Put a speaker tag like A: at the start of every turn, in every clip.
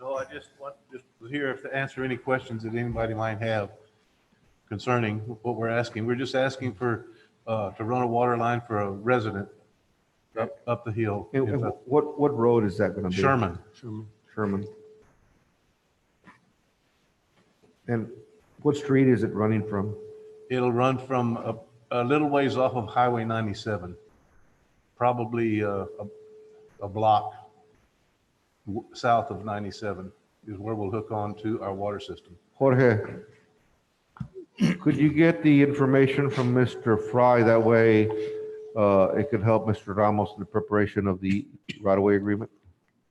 A: No, I just want, just here if to answer any questions that anybody might have concerning what we're asking. We're just asking for, uh, to run a water line for a resident up, up the hill.
B: And and what, what road is that going to be?
A: Sherman.
B: Sherman. And what street is it running from?
A: It'll run from a, a little ways off of Highway 97, probably uh, a, a block w- south of 97 is where we'll hook on to our water system.
B: Jorge, could you get the information from Mr. Fry? That way, uh, it could help Mr. Ramos in the preparation of the right-of-way agreement?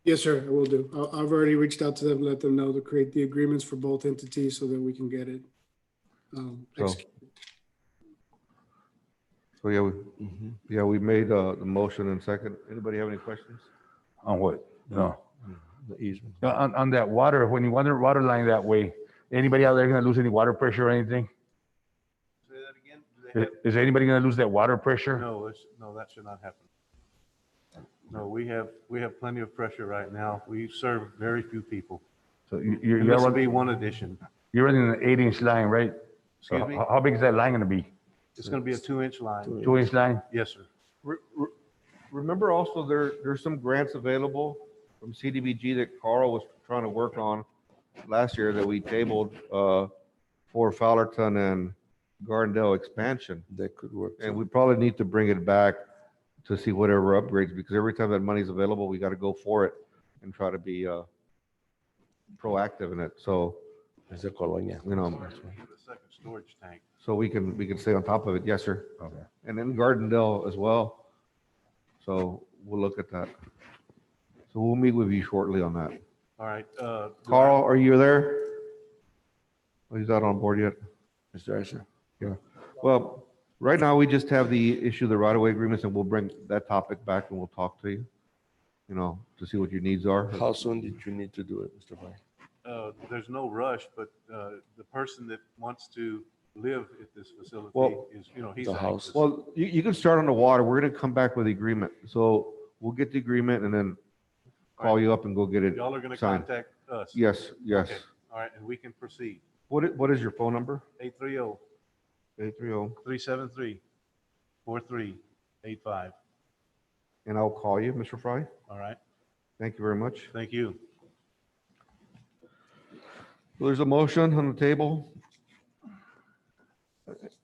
C: Yes, sir, I will do. I- I've already reached out to them, let them know to create the agreements for both entities so that we can get it. um,
B: So-
C: executed.
B: So, yeah, we, yeah, we made, uh, the motion and second. Anybody have any questions?
D: On what? No.
B: The easement.
D: On, on that water, when you water, water line that way, anybody out there gonna lose any water pressure or anything?
A: Say that again? Do they
D: Is,
A: have-
D: is anybody gonna lose that water pressure?
A: No, it's, no, that should not happen. No, we have, we have plenty of pressure right now. We serve very few people.
D: So you, you're,
A: And
D: you're
A: this will be
D: running-
A: one addition.
D: you're running an eight inch line, right? So
A: Excuse me?
B: Uh,
D: How, how big is that line gonna be?
A: It's going to be a two-inch line.
D: Two inch line?
A: Yes, sir.
B: Re- re- Remember also there, there's some grants available from CDBG that Carl was trying to work on last year that we tabled uh, for Fowlerton and Gardendale expansion.
E: That could work.
B: And we probably need to bring it back to see whatever upgrades, because every time that money's available, we got to go for it and try to be uh, proactive in it. So,
E: As a colonia.
B: you know,
A: The second storage tank.
B: so we can, we can stay on top of it. Yes, sir.
D: Okay.
B: and then Gardendale as well. So we'll look at that. So we'll meet with you shortly on that.
A: All right. uh, do I-
B: Carl, are you there? Oh, He's not on board yet.
E: Mr. Asher.
B: Well, right now, we just have the issue of the right-of-way agreements, and we'll bring that topic back and we'll talk to you, you know, to see what your needs are.
E: How soon did you need to do it, Mr. Fine?
A: uh, There's no rush, but uh, the person that wants to live at this facility
B: Well-
A: is, you know, he's.
E: The house.
A: anxious.
B: Well, you, you can start on the water. We're gonna come back with the agreement. So we'll get the agreement and then call you up and go get it.
A: Y'all are going to
B: Sign.
A: contact us.
B: Yes, yes.
A: Okay, All right, and we can proceed. oh,
B: What, i- what is your phone number?
A: 830
B: Eight three oh.
A: 373 4385.
B: And I'll call you, Mr. Fry.
A: All right,
B: Thank you very much.
A: thank you.
B: So There's a motion on the table.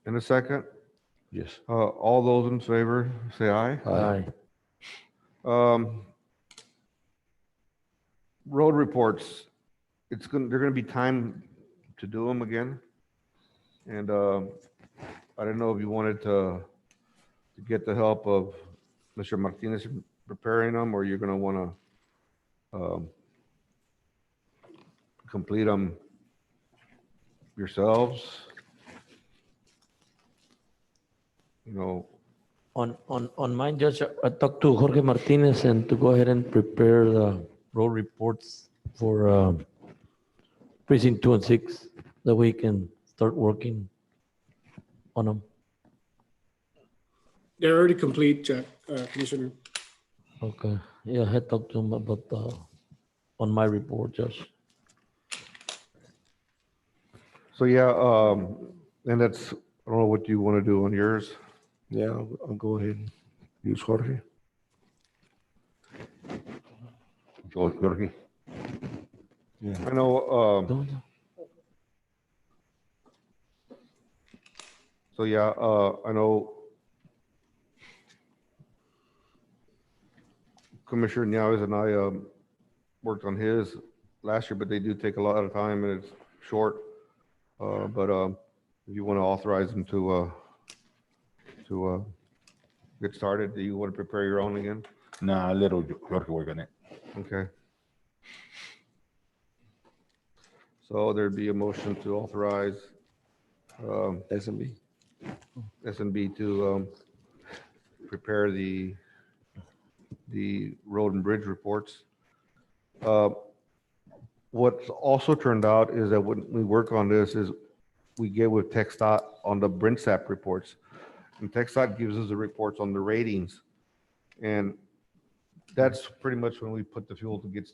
B: In a second,
E: Yes.
B: uh, all those in favor, say aye.
E: Aye.
B: Um, road reports, it's gonna, they're gonna be time to do them again. And, um, I don't know if you wanted to, to get the help of Mr. Martinez in preparing them, or you're gonna wanna, um, complete them yourselves. You know,
F: On, on, on mine, Judge, I- I talked to Jorge Martinez and to go ahead and prepare the road reports for um, precinct two and six, that we can start working on them.
C: They're already complete, Jack, uh, Commissioner.
F: Okay, yeah, I had talked to him about, uh, on my report, Judge.
B: So yeah, um, and that's, I don't know what you want to do on yours.
E: Yeah, I'll I'll go ahead. Use Jorge.
B: Go, Jorge.
E: Yeah.
B: I know, um,
F: Don't-
B: so yeah, uh, I know Commissioner Nieves and I, um, worked on his last year, but they do take a lot of time and it's short. Uh, but, um, if you want to authorize them to, uh, to, uh, get started, do you want to prepare your own again?
D: Nah, little Jorge work on it.
B: Okay. So there'd be a motion to authorize um,
E: S and B.
B: S and B to um, prepare the, the road and bridge reports. Uh, What's also turned out is that when we work on this is we get with TechStot on the BrinSAP reports. And TechStot gives us the reports on the ratings. And that's pretty much when we put the fuel to get